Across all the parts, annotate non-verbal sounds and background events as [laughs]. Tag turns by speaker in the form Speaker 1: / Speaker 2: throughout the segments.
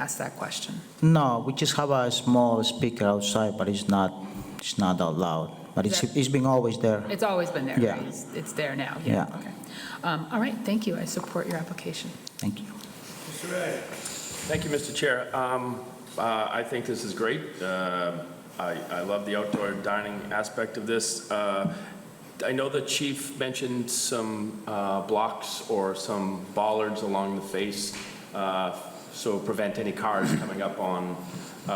Speaker 1: ask that question.
Speaker 2: No, we just have a small speaker outside, but it's not, it's not that loud. But it's,
Speaker 1: Is that-
Speaker 2: it's been always there.
Speaker 1: It's always been there,
Speaker 2: Yeah.
Speaker 1: right? It's- It's there now, yeah,
Speaker 2: Yeah.
Speaker 1: okay. Um, All right, thank you, I support your application.
Speaker 2: Thank you.
Speaker 3: Thank you, Mr. Chair. Um, uh, I think this is great. Um, I I love the outdoor dining aspect of this. Uh, I know the chief mentioned some uh, blocks or some bollards along the face, uh, so prevent any cars coming up on uh,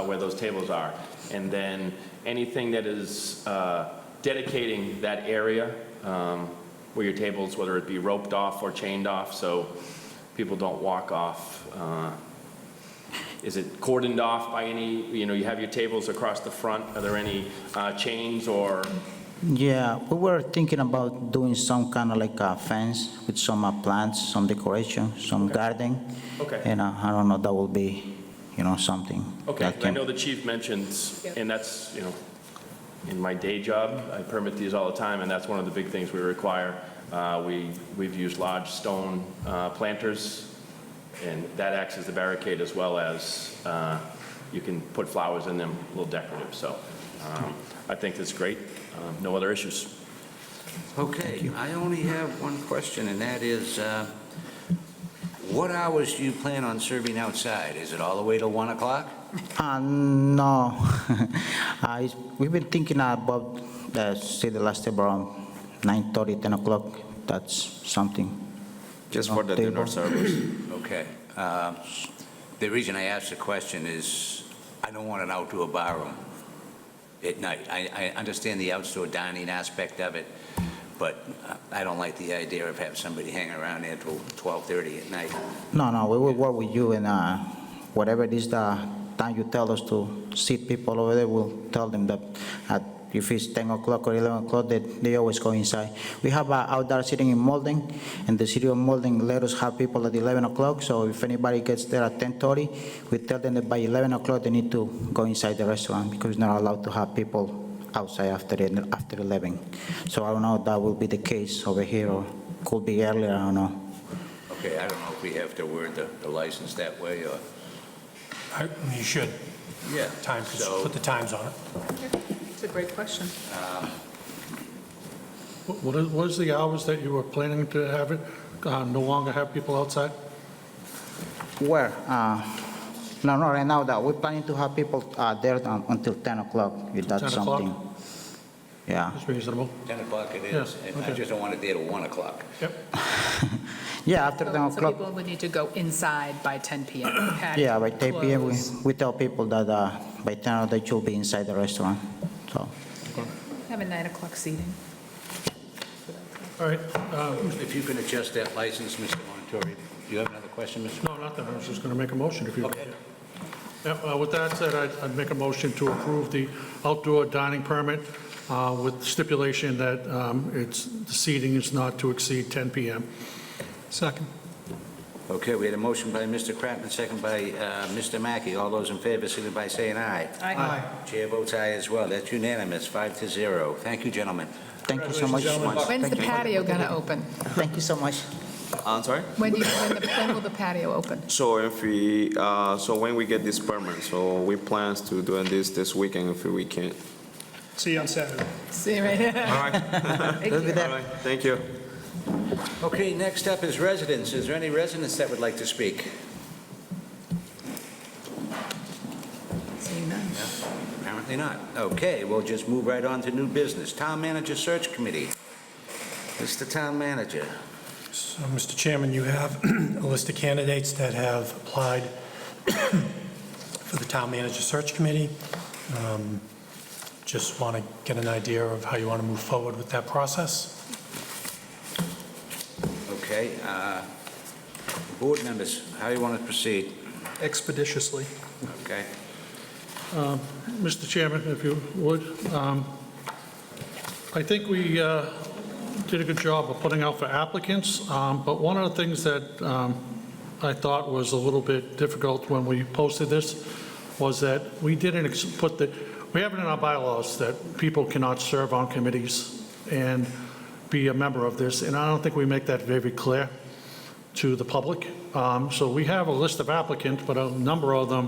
Speaker 3: where those tables are. And then anything that is uh, dedicating that area um, where your tables, whether it be roped off or chained off, so people don't walk off uh, is it cordoned off by any, you know, you have your tables across the front, are there any uh, chains or,
Speaker 2: Yeah, we were thinking about doing some kind of like a fence with some uh, plants, some decoration, some garden.
Speaker 3: Okay.
Speaker 2: And uh, I don't know, that will be, you know, something.
Speaker 3: okay,
Speaker 2: that
Speaker 3: I
Speaker 2: can-
Speaker 3: know the chief mentions,
Speaker 1: Yep.
Speaker 3: and that's, you know, in my day job, I permit these all the time, and that's one of the big things we require. Uh, We, we've used large stone uh, planters, and that acts as the barricade as well as uh, you can put flowers in them, a little decorative, so um, I think that's great. Um, No other issues.
Speaker 4: Okay, I only have one question, and that is, uh, what hours do you plan on serving outside? Is it all the way till 1 o'clock?
Speaker 2: Uh, no, [laughs] I, we've been thinking about, uh, say the last time around 9:30, 10 o'clock. That's something.
Speaker 5: Just
Speaker 2: No,
Speaker 5: for the
Speaker 2: table.
Speaker 5: dinner service.
Speaker 4: Okay. uh, The reason I asked the question is, I don't want an outdoor barroom at night. I I understand the outdoor dining aspect of it, but I don't like the idea of having somebody hanging around there till 12:30 at night.
Speaker 2: No, no, we will work with you and uh, whatever it is the time you tell us to seat people over there, we'll tell them that at, if it's 10 o'clock or 11 o'clock, that they always go inside. We have uh, outdoor sitting in Malden, and the city of Malden let us have people at 11 o'clock, so if anybody gets there at 10:30, we tell them that by 11 o'clock, they need to go inside the restaurant because we're not allowed to have people outside after, the- after 11. So I don't know if that will be the case over here or could be earlier, I don't know.
Speaker 4: Okay, I don't know if we have to word the the license that way, or...
Speaker 6: I- You should,
Speaker 4: Yeah.
Speaker 6: time,
Speaker 4: So-
Speaker 6: put the times on it.
Speaker 1: It's a great question.
Speaker 7: What- What is, what is the hours that you were planning to have it, uh, no longer have people outside?
Speaker 2: Where? Uh, No, no, right now, that, we're planning to have people uh, there un- until 10 o'clock, if that's
Speaker 7: 10 o'clock?
Speaker 2: something. Yeah,
Speaker 7: That's reasonable.
Speaker 4: 10 o'clock it
Speaker 7: Yes,
Speaker 4: is, and I
Speaker 7: okay.
Speaker 4: just don't want it there till 1 o'clock.
Speaker 2: yeah, after 10
Speaker 1: So
Speaker 2: o'clock,
Speaker 1: people would need to go inside by 10 PM.
Speaker 2: [clears throat]
Speaker 1: Patio
Speaker 2: yeah, by 10 PM, we
Speaker 1: closed.
Speaker 2: we tell people that uh, by 10 they should be inside the restaurant, so.
Speaker 1: Have a 9 o'clock seating.
Speaker 6: All right, um,
Speaker 4: If you can adjust that license, Mr. Montori, do you have another question, Mr.?
Speaker 6: no, nothing, I was just going to make a motion if you.
Speaker 4: Okay.
Speaker 6: Yeah, uh, With that said, I'd I'd make a motion to approve the outdoor dining permit uh, with stipulation that um, it's, the seating is not to exceed 10 PM. Second.
Speaker 4: Okay, we had a motion by Mr. Kratman, second by uh, Mr. Mackey. All those in favor, signify by saying aye. Chair votes aye as well. That's unanimous, five to zero. Thank you, gentlemen.
Speaker 2: Thank you so much.
Speaker 1: When's the patio going to open?
Speaker 2: Thank you so much.
Speaker 5: I'm sorry?
Speaker 1: When do you, when the- when will the patio open?
Speaker 5: So if we, uh, so when we get this permit, so we plans to doing this this weekend if we can.
Speaker 6: See you on Saturday.
Speaker 1: [laughs] See, right here.
Speaker 5: All right,
Speaker 2: [laughs] We'll be
Speaker 5: all
Speaker 2: there.
Speaker 5: right, thank you.
Speaker 4: Okay, next up is residents. Is there any residents that would like to speak?
Speaker 1: Seeing none.
Speaker 4: Apparently not. Okay, we'll just move right on to new business. Town Manager Search Committee. Mr. Town Manager.
Speaker 6: So, Mr. Chairman, you have [clears throat] a list of candidates that have applied [clears throat] for the Town Manager Search Committee. Um, Just want to get an idea of how you want to move forward with that process.
Speaker 4: Okay, uh, board members, how you want to proceed?
Speaker 7: Expeditiously.
Speaker 4: Okay?
Speaker 7: Mr. Chairman, if you would, um, I think we uh, did a good job of putting out for applicants, um, but one of the things that um, I thought was a little bit difficult when we posted this was that we didn't ex- put the, we have it in our bylaws that people cannot serve on committees and be a member of this, and I don't think we make that very clear to the public. Um, So we have a list of applicants, but a number of them